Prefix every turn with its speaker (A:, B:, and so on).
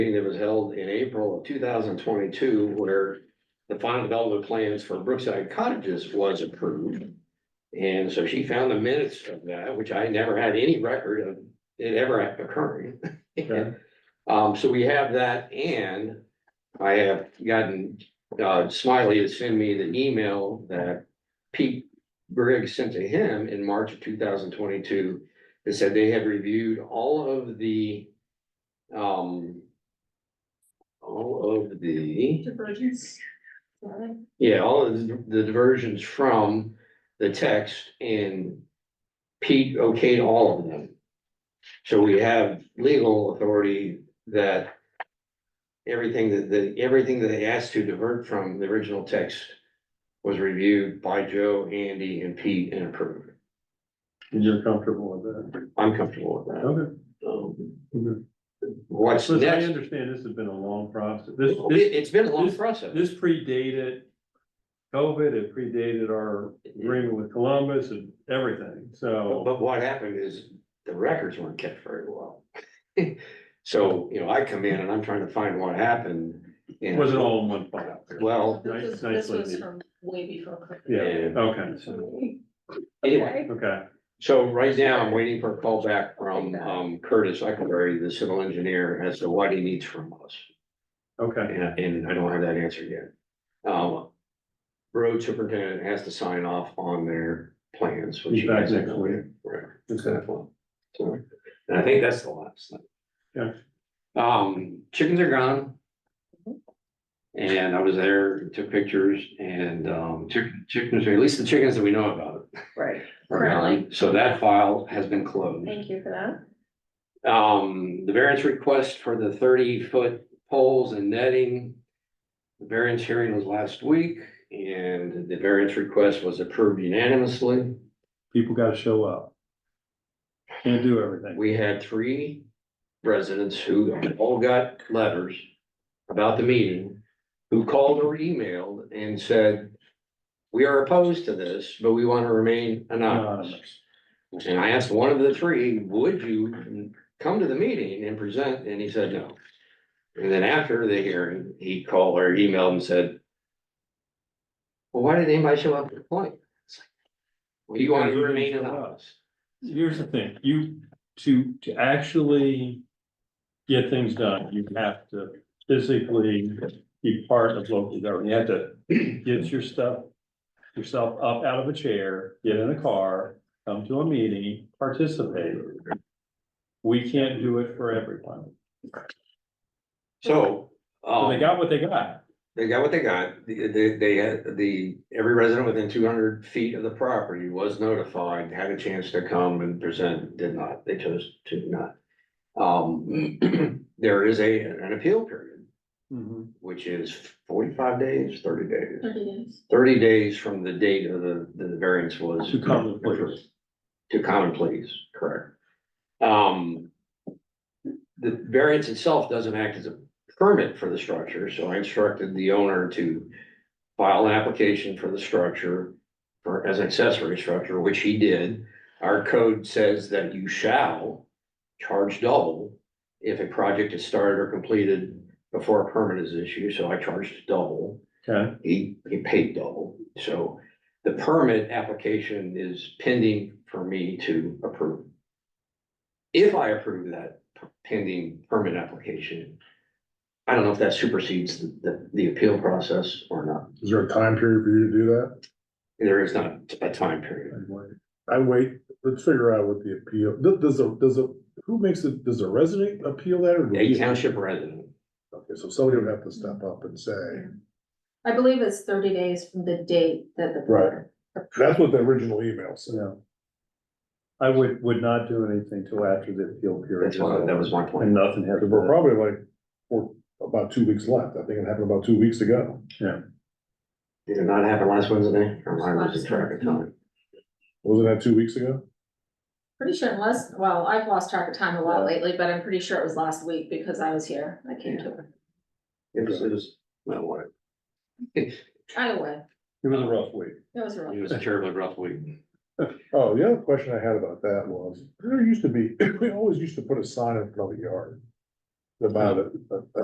A: meeting that was held in April of two thousand twenty-two where the final development plans for Brookside Cottages was approved. And so she found the minutes of that, which I never had any record of it ever occurring.
B: Okay.
A: Um, so we have that and I have gotten uh, Smiley to send me the email that Pete Briggs sent to him in March of two thousand twenty-two. It said they had reviewed all of the, um, all of the,
C: Divergence. Sorry.
A: yeah, all of the diversions from the text and Pete okayed all of them. So we have legal authority that everything that, that, everything that they asked to divert from the original text was reviewed by Joe, Andy, and Pete and approved.
B: And you're comfortable with that?
A: I'm comfortable with that.
B: Okay.
A: Um,
B: Mhm.
A: What's
B: Listen, I
A: next?
B: understand this has been a long process. This,
A: It-
B: this,
A: It's been a long process.
B: this predated COVID, it predated our agreement with Columbus and everything,
A: But,
B: so.
A: but what happened is the records weren't kept very well. So, you know, I come in and I'm trying to find what happened.
B: It
A: and-
B: wasn't all in one file.
A: Well,
B: Nice-
C: This was, this
B: nicely
C: was
B: made.
C: from way before.
B: Yeah,
A: Yeah.
B: okay,
A: anyway,
B: okay,
A: so right now I'm waiting for a call back from um, Curtis Eckleberry, the civil engineer, as to what he needs from us.
B: okay,
A: And, and I don't have that answer yet. Um, road superintendent has to sign off on their plans. which
B: He's
A: he
B: back
A: hasn't
B: next
A: done
B: week.
A: yet. Right.
B: okay.
A: So, and I think that's the last thing.
B: Yeah.
A: Um, chickens are gone. And I was there, took pictures and, um, took chickens, or at least the chickens that we know about.
C: Right.
A: are gone. So that file has been closed.
C: Thank you for that.
A: Um, the variance request for the thirty foot poles and netting. The variance hearing was last week and the variance request was approved unanimously.
B: People gotta show up. Can't do everything.
A: We had three residents who all got letters about the meeting, who called or emailed and said, we are opposed to this, but we want to remain anonymous.
B: Anonymous.
A: And I asked one of the three, would you come to the meeting and present? And he said, no. And then after the hearing, he called or emailed and said, well, why did anybody show up to the point? It's like, Well, you want to remain anonymous.
B: Here's the thing, you, to, to actually get things done, you have to physically be part of local government. You have to get your stuff, yourself up out of a chair, get in a car, come to a meeting, participate. We can't do it for everyone.
A: So.
B: So
A: um,
B: They got what they got.
A: They got what they got. The- They, they had the, every resident within two hundred feet of the property was notified, had a chance to come and present, did not, they chose to not. Um, there is a, an appeal period,
D: Mm-hmm.
A: which is forty-five days, thirty days,
C: Thirty days.
A: thirty days from the date of the, the variance was.
B: To come and please.
A: To come and please, correct. Um. The variance itself doesn't act as a permit for the structure, so I instructed the owner to. File an application for the structure for as an accessory structure, which he did. Our code says that you shall charge double. If a project is started or completed before a permit is issued, so I charged double
B: Okay,
A: he, he paid double, so the permit application is pending for me to approve. If I approve that pending permit application, I don't know if that supersedes the, the, the appeal process or not,
D: Is there a time period for you to do that?
A: there is not a time period.
D: I wait, let's figure out what the appeal, th- does a, does a, who makes it, does a resident appeal that? or do
A: A
D: we-
A: township resident,
D: Okay, so somebody would have to step up and say,
C: I believe it's thirty days from the date that the.
D: Right. that's what the original email said.
B: yeah. I would, would not do anything till after the appeal period.
A: that's why, that was my
B: And
A: point.
B: nothing has.
D: Because we're probably like, we're about two weeks left. I think it happened about two weeks ago.
A: Did it not happen last Wednesday, or am I losing track of time?
D: Wasn't that two weeks ago?
C: Pretty sure unless, well, I've lost track of time a lot
B: Yeah.
C: lately, but I'm pretty sure it was last week because I was here. I came to it.
A: It was, it was, well, what,
C: Either way,
B: It was a rough week.
C: it was
A: it
C: real.
A: was a terribly rough week.
D: Oh, the other question I had about that was, there used to be, we always used to put a sign in front of the yard. about it, but-